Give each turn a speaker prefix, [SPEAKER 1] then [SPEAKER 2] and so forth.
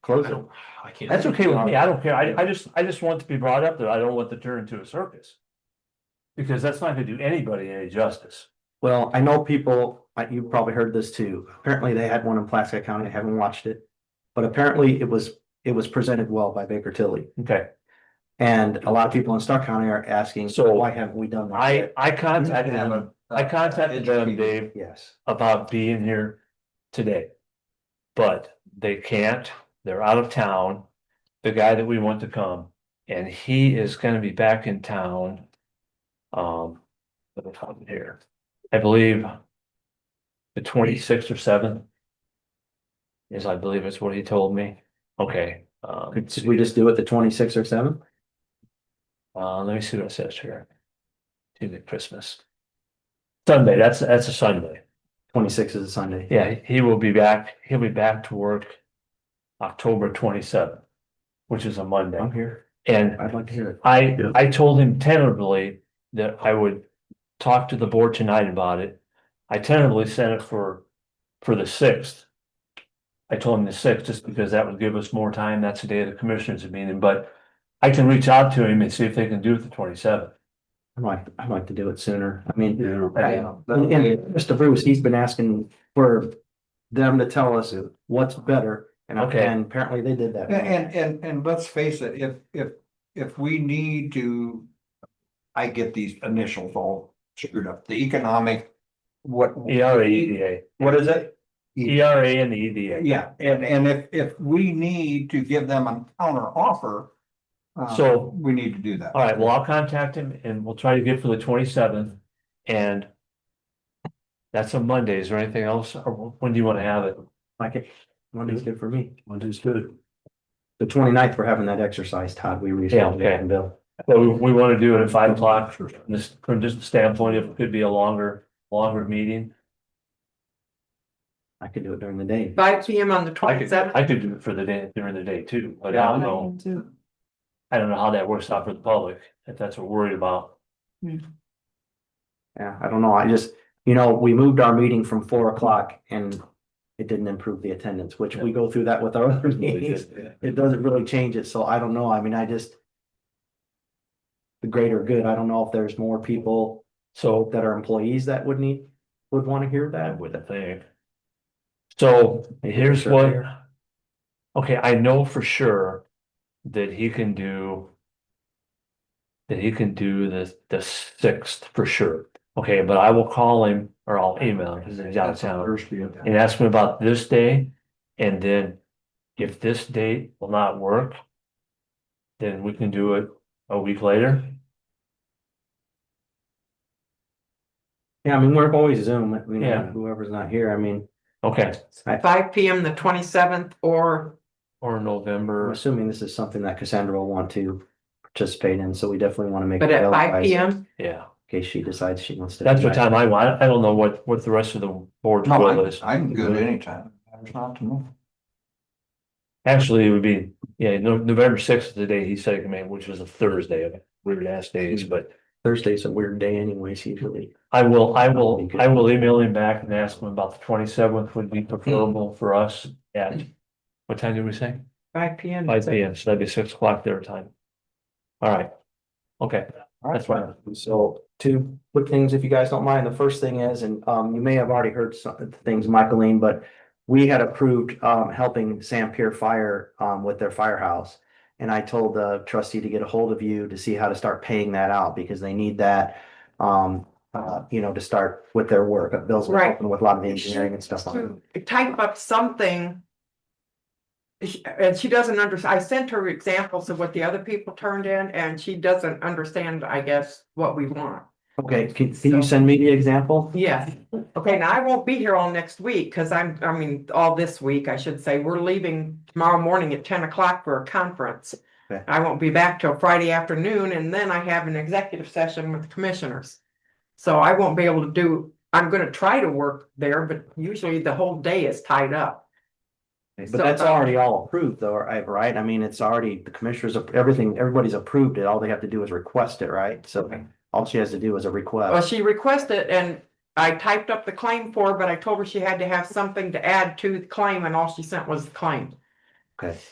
[SPEAKER 1] Close
[SPEAKER 2] I
[SPEAKER 1] it.
[SPEAKER 2] don't, I can't.
[SPEAKER 1] That's okay with me. I don't care. I, I just, I just want to be brought up that I don't want to turn into a circus. Because that's not gonna do anybody any justice.
[SPEAKER 3] Well, I know people, uh, you probably heard this too. Apparently they had one in Plaska County. I haven't watched it. But apparently it was, it was presented well by Baker Tilly.
[SPEAKER 1] Okay,
[SPEAKER 3] And a lot of people in Stark County are asking,
[SPEAKER 1] So,
[SPEAKER 3] so why haven't we done that?
[SPEAKER 1] I,
[SPEAKER 3] yet?"
[SPEAKER 1] I contacted them, I contacted them, Dave,
[SPEAKER 3] Yes,
[SPEAKER 1] about being here today. But they can't, they're out of town, the guy that we want to come, and he is gonna be back in town. Um, let me find it here, I believe. The twenty-sixth or seventh. Is I believe is what he told me, okay, um,
[SPEAKER 3] Could we just do it the twenty-sixth or seventh?
[SPEAKER 1] uh, let me see what it says here. To the Christmas. Sunday, that's, that's a Sunday.
[SPEAKER 3] Twenty-sixth is a Sunday.
[SPEAKER 1] Yeah, he will be back, he'll be back to work October twenty-seventh, which is a Monday.
[SPEAKER 3] I'm here.
[SPEAKER 1] And
[SPEAKER 3] I'd like to hear it.
[SPEAKER 1] I,
[SPEAKER 2] Yeah.
[SPEAKER 1] I told him tentatively that I would talk to the board tonight about it. I tentatively sent it for, for the sixth. I told him the sixth, just because that would give us more time, that's the day of the commissioners meeting, but I can reach out to him and see if they can do it the twenty-seventh.
[SPEAKER 3] I'd like, I'd like to do it sooner. I mean,
[SPEAKER 1] Yeah.
[SPEAKER 3] And, and Mr. Bruce, he's been asking for them to tell us what's better, and,
[SPEAKER 1] Okay.
[SPEAKER 3] and apparently they did that.
[SPEAKER 4] And, and, and, and let's face it, if, if, if we need to. I get these initials all screwed up, the economic, what.
[SPEAKER 1] ERA, EDA,
[SPEAKER 4] What is it?
[SPEAKER 1] ERA E and the EDA.
[SPEAKER 4] Yeah, and, and if, if we need to give them a counter offer. uh,
[SPEAKER 1] So-
[SPEAKER 4] We need to do that.
[SPEAKER 1] All right, well, I'll contact him and we'll try to get for the twenty seventh and. That's a Monday. Is there anything else? Or when do you want to have it?
[SPEAKER 3] Like it, Monday's good for me.
[SPEAKER 2] Monday's good.
[SPEAKER 3] The 29th ninth, we're having that exercise, Todd, we rescheduled
[SPEAKER 1] Yeah, okay.
[SPEAKER 3] it and Bill.
[SPEAKER 1] Well, we, we want to do it at five o'clock from this, from just the standpoint if it could be a longer, longer meeting.
[SPEAKER 3] I could do it during the day.
[SPEAKER 5] Five P M on the
[SPEAKER 1] I could,
[SPEAKER 5] twenty-seventh.
[SPEAKER 1] I could do it for the day, during the day too, but I don't know, I don't know how that works out for the public, if that's what we're worried about.
[SPEAKER 3] Yeah, I don't know, I just, you know, we moved our meeting from four o'clock and it didn't improve the attendance, which we go through that with our other meetings. It doesn't really change it, so I don't know, I mean, I just the greater good, I don't know if there's more people
[SPEAKER 1] So
[SPEAKER 3] that are employees that would need, would want to hear
[SPEAKER 1] I
[SPEAKER 3] that.
[SPEAKER 1] wouldn't think. So here's
[SPEAKER 3] sure
[SPEAKER 1] what.
[SPEAKER 3] here.
[SPEAKER 1] Okay, I know for sure that he can do. That he can do the the sixth for sure. Okay, but I will call him or I'll email him because he's out of town and ask him about this day. And then if this date will not work. Then we can do it a week later.
[SPEAKER 3] Yeah, I mean, we're always Zoom, you know,
[SPEAKER 1] Yeah.
[SPEAKER 3] whoever's not here, I mean,
[SPEAKER 1] Okay,
[SPEAKER 5] Five P M the twenty-seventh or
[SPEAKER 1] or
[SPEAKER 3] I'm
[SPEAKER 1] November.
[SPEAKER 3] assuming this is something that Cassandra will want to participate in, so we definitely want to make.
[SPEAKER 5] but
[SPEAKER 3] it
[SPEAKER 5] at five
[SPEAKER 3] televised
[SPEAKER 5] P M.
[SPEAKER 3] In
[SPEAKER 1] Yeah,
[SPEAKER 3] case she decides she wants to.
[SPEAKER 1] that's
[SPEAKER 3] do
[SPEAKER 1] what
[SPEAKER 3] that.
[SPEAKER 1] time I want. I don't know what what the rest of the board's
[SPEAKER 4] No,
[SPEAKER 1] will
[SPEAKER 4] I'm,
[SPEAKER 1] is.
[SPEAKER 4] I'm good anytime, there's not to move.
[SPEAKER 1] Actually, it would be, yeah, No- November sixth is the day he said it, man, which was a Thursday of weird ass days, but
[SPEAKER 3] Thursday's a weird day anyways, usually.
[SPEAKER 1] I will, I will, I will email him back and ask him about the twenty seventh would be preferable for us at what time did we say?
[SPEAKER 5] Five P M.
[SPEAKER 1] Five P M, so that'd be six o'clock their time. All right. Okay, that's fine.
[SPEAKER 3] So two quick things, if you guys don't mind, the first thing is, and um, you may have already heard some of the things, Michaeline, but. We had approved um, helping Sam Pier Fire um, with their firehouse. And I told the trustee to get a hold of you to see how to start paying that out because they need that. Um, uh, you know, to start with their work, Bill's been
[SPEAKER 5] Right.
[SPEAKER 3] helping with a lot of the engineering and stuff on it.
[SPEAKER 5] Type up something. She- And she doesn't understand. I sent her examples of what the other people turned in and she doesn't understand, I guess, what we want.
[SPEAKER 3] Okay, can can you send me the example?
[SPEAKER 5] Yeah, okay, now I won't be here all next week, because I'm, I mean, all this week, I should say, we're leaving tomorrow morning at ten o'clock for a conference.
[SPEAKER 3] Okay.
[SPEAKER 5] I won't be back till Friday afternoon, and then I have an executive session with the commissioners. So I won't be able to do, I'm gonna try to work there, but usually the whole day is tied up.
[SPEAKER 3] But that's already all approved though, right? right? I mean, it's already, the commissioners, everything, everybody's approved it. All they have to do is request it, right? So all she has to do is a
[SPEAKER 5] Well,
[SPEAKER 3] request.
[SPEAKER 5] she requested and I typed up the claim for, her, but I told her she had to have something to add to the claim, and all she sent was the claim.
[SPEAKER 3] Okay.